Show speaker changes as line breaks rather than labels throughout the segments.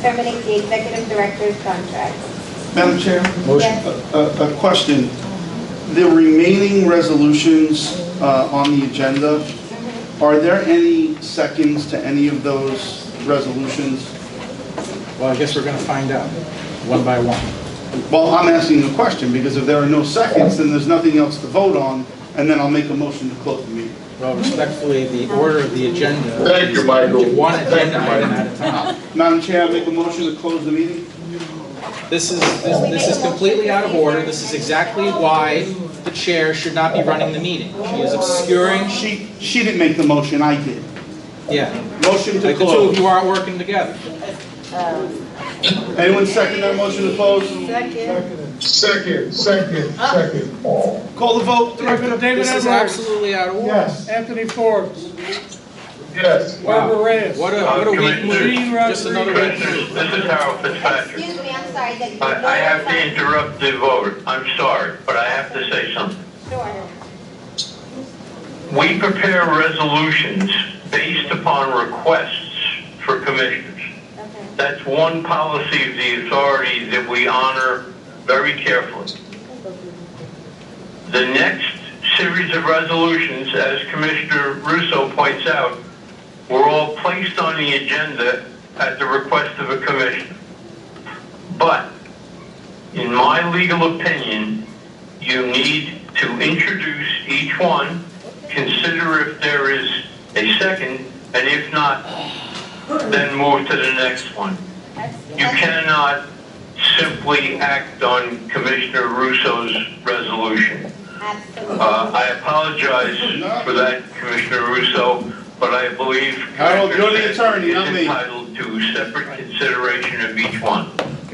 terminate the executive director's contract.
Madam Chair,
Motion.
a- a a question. The remaining resolutions uh, on the agenda, are there any seconds to any of those resolutions?
Well, I guess we're going to find out, one by one.
Well, I'm asking a question, because if there are no seconds, then there's nothing else to vote on, and then I'll make a motion to close the meeting.
Well, respectfully, the order of the agenda.
Thank you,
is
Michael.
One
Thank you,
agenda item at a time.
Madam Chair, I make a motion to close the meeting?
This is, this this is completely out of order. This is exactly why the chair should not be running the meeting. She is obscuring,
She, she didn't make the motion, I did.
yeah.
Motion to
Like the two of
close.
you aren't working together.
Anyone second that motion to close?
Second, second, second.
Call the vote, Director.
Director David
This is
Edwards.
absolutely out of order.
Yes. Anthony Forbes.
Yes.
Barbara Reyes.
What a, what a weak move.
Gene
Just another
Rodriguez.
weak move.
This is this is Harold Fitzpatrick.
Excuse me, I'm sorry that you.
I I have to interrupt the vote. I'm sorry, but I have to say something.
Sure.
We prepare resolutions based upon requests for commissioners.
Okay.
That's one policy of the authority that we honor very carefully. The next series of resolutions, as Commissioner Russo points out, were all placed on the agenda at the request of a commissioner. But, in my legal opinion, you need to introduce each one, consider if there is a second, and if not, then move to the next one. You cannot simply act on Commissioner Russo's resolution.
Absolutely.
Uh, I apologize for that, Commissioner Russo, but I believe.
Harold, you're the
Commissioner Fed
attorney, not
is
me.
Entitled to separate consideration of each one.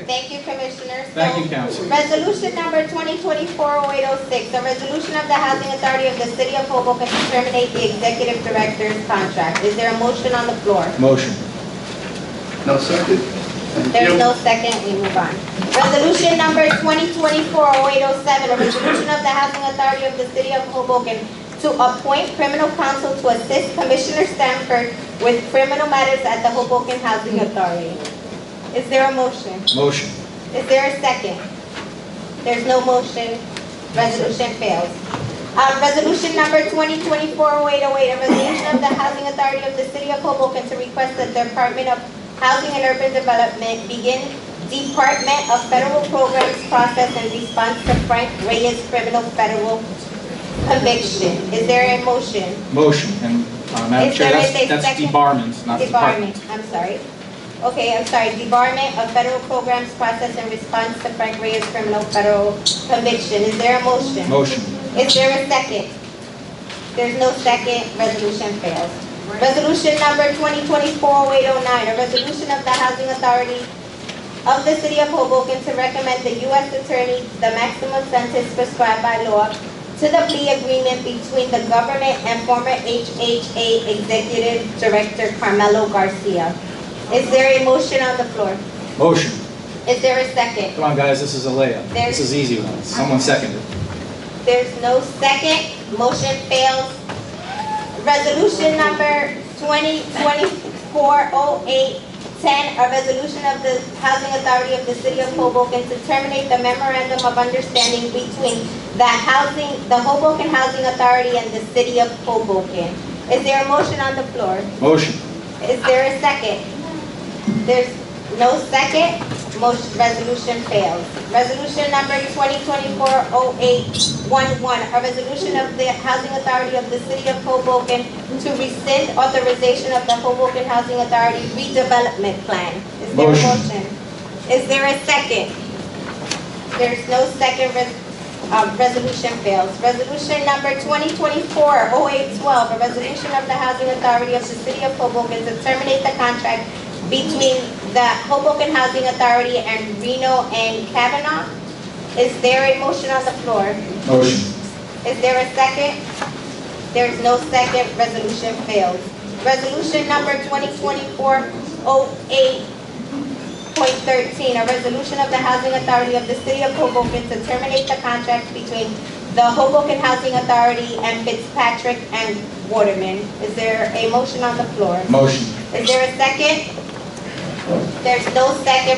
Thank you, Commissioner. So,
Thank you, Council.
Resolution number 2024-0806, a resolution of the Housing Authority of the City of Hoboken to terminate the executive director's contract. Is there a motion on the floor?
Motion.
No second? Thank
There's
you.
no second, we move on. Resolution number 2024-0807, a resolution of the Housing Authority of the City of Hoboken to appoint criminal counsel to assist Commissioner Stanford with criminal matters at the Hoboken Housing Authority. Is there a motion?
Motion.
Is there a second? There's no motion. Resolution fails. Um, Resolution number 2024-0808, a resolution of the Housing Authority of the City of Hoboken to request that the Department of Housing and Urban Development begin Department of Federal Programs process in response to Frank Reyes criminal federal conviction. Is there a motion?
Motion. And uh, Madam
Is
Chair,
there
that's,
a
that's
second?
debarment, not department.
Debarment, I'm sorry. Okay, I'm sorry, debarment of federal programs process in response to Frank Reyes criminal federal conviction. Is there a motion?
Motion.
Is there a second? There's no second, resolution fails. Resolution number 2024-0809, a resolution of the Housing Authority of the City of Hoboken to recommend the U.S. Attorney the maximum sentence prescribed by law to the plea agreement between the government and former HHA Executive Director Carmelo Garcia. Is there a motion on the floor?
Motion.
Is there a second?
Come on, guys, this is a layup.
There's-
This is easy one. Someone seconded.
There's no second, motion fails. Resolution number 2024-0810, a resolution of the Housing Authority of the City of Hoboken to terminate the memorandum of understanding between the housing, the Hoboken Housing Authority and the City of Hoboken. Is there a motion on the floor?
Motion.
Is there a second? There's no second, motion, resolution fails. Resolution number 2024-0811, a resolution of the Housing Authority of the City of Hoboken to rescind authorization of the Hoboken Housing Authority redevelopment plan. Is there a
Motion.
motion? Is there a second? There's no second, res- uh, resolution fails. Resolution number 2024-0812, a resolution of the Housing Authority of the City of Hoboken to terminate the contract between the Hoboken Housing Authority and Reno and Kavanaugh. Is there a motion on the floor?
Motion.
Is there a second? There is no second, resolution fails. Resolution number 2024-08.13, a resolution of the Housing Authority of the City of Hoboken to terminate the contract between the Hoboken Housing Authority and Fitzpatrick and Waterman. Is there a motion on the floor?
Motion.
Is there a second? There's no second